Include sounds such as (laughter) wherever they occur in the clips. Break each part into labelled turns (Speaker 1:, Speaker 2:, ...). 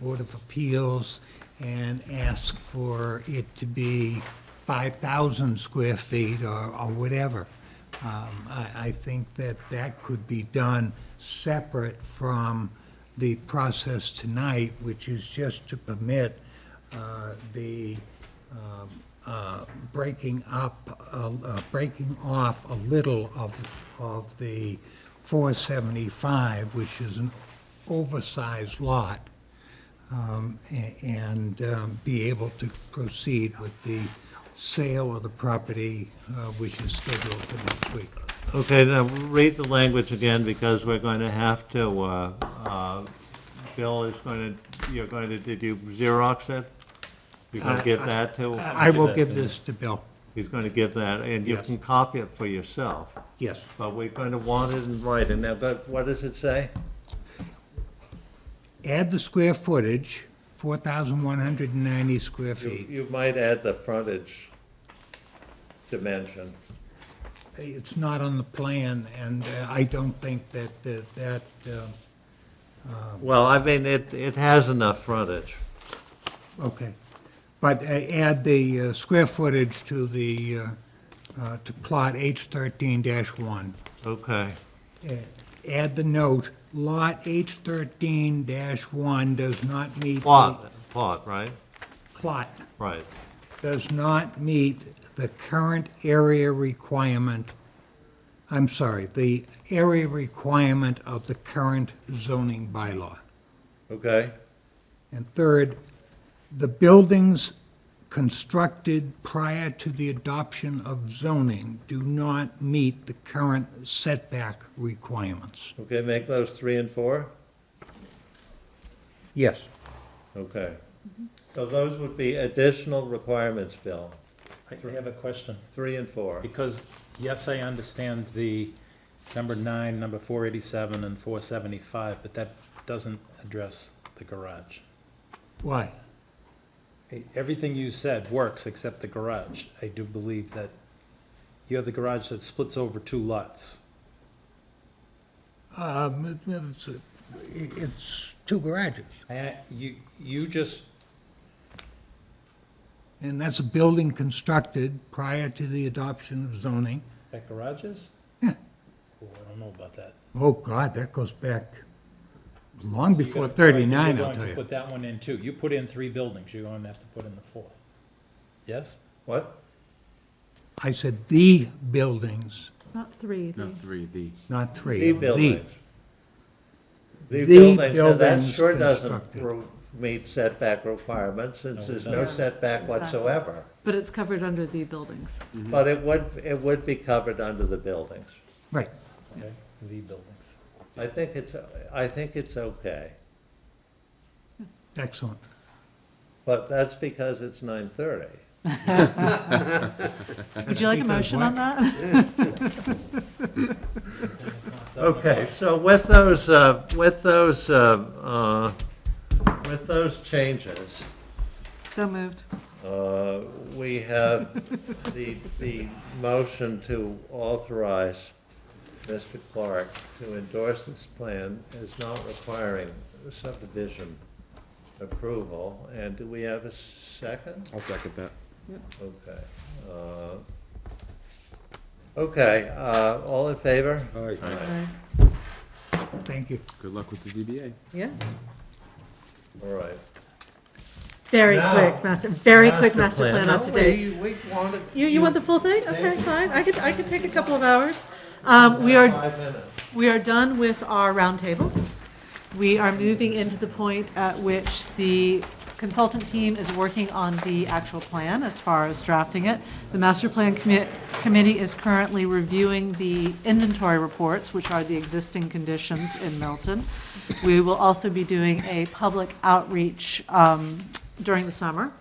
Speaker 1: Board of Appeals and ask for it to be 5,000 square feet or or whatever. Um, I I think that that could be done separate from the process tonight, which is just to permit uh, the um, uh, breaking up, uh, uh, breaking off a little of of the 475, which is an oversized lot um, a- and um, be able to proceed with the sale of the property, uh, which is scheduled for next week.
Speaker 2: Okay, now, read the language again, because we're going to have to, uh, uh, Bill is going to, you're going to, did you Xerox it? You're going to give that to,
Speaker 1: I will give this to Bill.
Speaker 2: he's going to give that, and you
Speaker 1: Yes.
Speaker 2: can copy it for yourself,
Speaker 1: Yes.
Speaker 2: but we're going to want it in writing. Now, but what does it say?
Speaker 1: Add the square footage, 4,190 square
Speaker 2: You
Speaker 1: feet.
Speaker 2: you might add the frontage dimension.
Speaker 1: It's not on the plan, and uh, I don't think that, that- that, uh,
Speaker 2: Well, I mean, it, it has enough frontage.
Speaker 1: okay. But uh, add the uh, square footage to the, uh, uh, to plot H13-1.
Speaker 2: Okay.
Speaker 1: add the note, lot H thirteen one does not meet. the-
Speaker 2: Plot, plot, right?
Speaker 1: Plot,
Speaker 2: Right.
Speaker 1: does not meet the current area requirement, I'm sorry, the area requirement of the current zoning bylaw.
Speaker 2: Okay.
Speaker 1: And third, the buildings constructed prior to the adoption of zoning do not meet the current setback requirements.
Speaker 2: Okay, make those three and four?
Speaker 1: Yes.
Speaker 2: Okay. So those would be additional requirements, Bill,
Speaker 3: I I have a question,
Speaker 2: three and four.
Speaker 3: because, yes, I understand the number nine, number four eighty-seven and four seventy-five, but that doesn't address the garage.
Speaker 1: Why?
Speaker 3: Hey, Everything you said works except the garage. I do believe that you have the garage that splits over two lots.
Speaker 1: Um, it- it's, uh, it- it's two garages,
Speaker 3: I, you, you just,
Speaker 1: and that's a building constructed prior to the adoption of zoning.
Speaker 3: that garages?
Speaker 1: Yeah.
Speaker 3: Oh, I don't know about that.
Speaker 1: Oh, God, that goes back long
Speaker 3: You
Speaker 1: before
Speaker 3: gotta-
Speaker 1: thirty-nine,
Speaker 3: You're
Speaker 1: I'll
Speaker 3: going
Speaker 1: tell
Speaker 3: to
Speaker 1: you.
Speaker 3: put that one in too. You put in three buildings, you're going to have to put in the fourth. Yes?
Speaker 2: What?
Speaker 1: I said the buildings,
Speaker 4: Not three,
Speaker 5: No,
Speaker 4: the-
Speaker 5: three, the,
Speaker 1: not three.
Speaker 2: The buildings. The
Speaker 1: The
Speaker 2: buildings, now that
Speaker 1: buildings
Speaker 2: sure doesn't
Speaker 1: constructed.
Speaker 2: re- meet setback requirements, since
Speaker 3: No, it
Speaker 2: there's no
Speaker 3: doesn't.
Speaker 2: setback whatsoever.
Speaker 4: but it's covered under the buildings.
Speaker 2: But it would, it would be covered under the buildings.
Speaker 1: Right,
Speaker 3: Okay, the buildings.
Speaker 2: I think it's, I think it's okay,
Speaker 1: excellent.
Speaker 2: but that's because it's nine thirty.
Speaker 4: Would you like a
Speaker 1: because
Speaker 4: motion on that? (laughs)
Speaker 2: Okay, so with those, uh, with those, uh, uh, with those changes,
Speaker 4: So moved.
Speaker 2: Uh, We have the, the motion to authorize Mr. Clark to endorse this plan as not requiring subdivision approval. And do we have a second?
Speaker 5: I'll second that.
Speaker 2: Okay. uh, Okay, uh, all in favor?
Speaker 1: Thank you.
Speaker 5: Good luck with the ZBA.
Speaker 4: Yeah.
Speaker 2: All right.
Speaker 4: Very
Speaker 2: Now-
Speaker 4: quick, master, very quick master plan
Speaker 2: No,
Speaker 4: up to date.
Speaker 2: We, we want to.
Speaker 4: You, you want the full thing? Okay, fine, I could, I could take a couple of hours. Um, we are,
Speaker 2: Five minutes.
Speaker 4: we are done with our roundtables. We are moving into the point at which the consultant team is working on the actual plan as far as drafting it. The master plan commit, committee is currently reviewing the inventory reports, which are the existing conditions in Milton. We will also be doing a public outreach um, during the summer,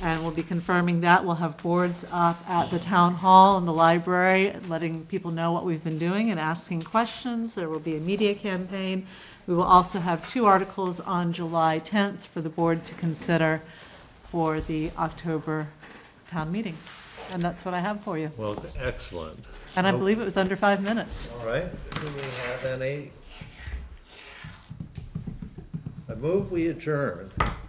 Speaker 4: and we'll be confirming that. We'll have boards up at the town hall and the library, letting people know what we've been doing and asking questions. There will be a media campaign. We will also have two articles on July 10th for the board to consider for the October town meeting. And that's what I have for you.
Speaker 2: Well, excellent.
Speaker 4: And I believe it was under five minutes.
Speaker 2: All right, do we have any? I I move we adjourn.